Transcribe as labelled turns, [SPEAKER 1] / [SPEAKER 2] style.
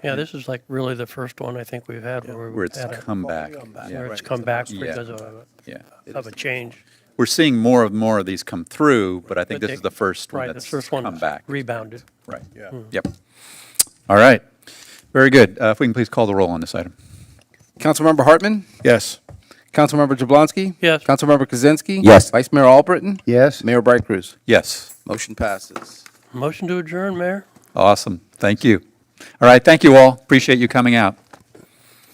[SPEAKER 1] Yeah, this is like really the first one I think we've had where
[SPEAKER 2] where
[SPEAKER 1] we've
[SPEAKER 2] it's
[SPEAKER 1] had a-
[SPEAKER 2] come back.
[SPEAKER 1] where
[SPEAKER 2] Yeah,
[SPEAKER 1] it's come back
[SPEAKER 2] Yeah.
[SPEAKER 1] because of a-
[SPEAKER 2] yeah.
[SPEAKER 1] of a change.
[SPEAKER 2] We're seeing more and more of these come through, but I think
[SPEAKER 1] But
[SPEAKER 2] this is
[SPEAKER 1] they-
[SPEAKER 2] the first one
[SPEAKER 1] Right, the
[SPEAKER 2] that's
[SPEAKER 1] first one
[SPEAKER 2] come back.
[SPEAKER 1] rebounded.
[SPEAKER 2] Right.
[SPEAKER 3] Yeah.
[SPEAKER 2] Yep. All right. Very good. Uh, If we can please call the roll on this item.
[SPEAKER 4] Councilmember Hartman?
[SPEAKER 3] Yes.
[SPEAKER 4] Councilmember Jablonski?
[SPEAKER 1] Yes.
[SPEAKER 4] Councilmember Kaczynski?
[SPEAKER 5] Yes.
[SPEAKER 4] Vice Mayor Albritton?
[SPEAKER 5] Yes.
[SPEAKER 4] Mayor Bright Cruz?
[SPEAKER 2] Yes.
[SPEAKER 4] Motion passes.
[SPEAKER 1] Motion to adjourn, Mayor?
[SPEAKER 2] Awesome. Thank you. All right. Thank you all. Appreciate you coming out.